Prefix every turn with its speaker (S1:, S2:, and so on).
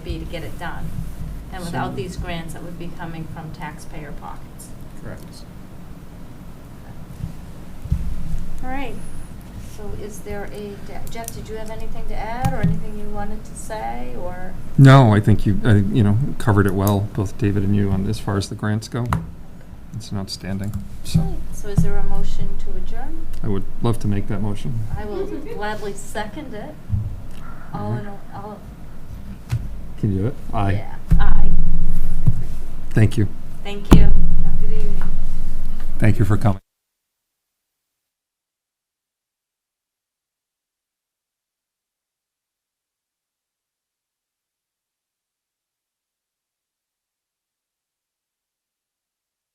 S1: be to get it done. And without
S2: So-
S1: these grants, it would be coming from taxpayer pockets.
S2: Correct.
S1: All right, so is there a, Jeff, did you have anything to add or anything you wanted to say or?
S2: No, I think you, I, you know, covered it well, both David and you, on as far as the grants go. It's an outstanding, so
S1: So is there a motion to adjourn?
S2: I would love to make that motion.
S1: I will gladly second it. All in, all- all,
S2: Can you do it? Aye.
S1: yeah, aye.
S2: Thank you.
S1: Thank you. Have a good evening.
S2: Thank you for coming.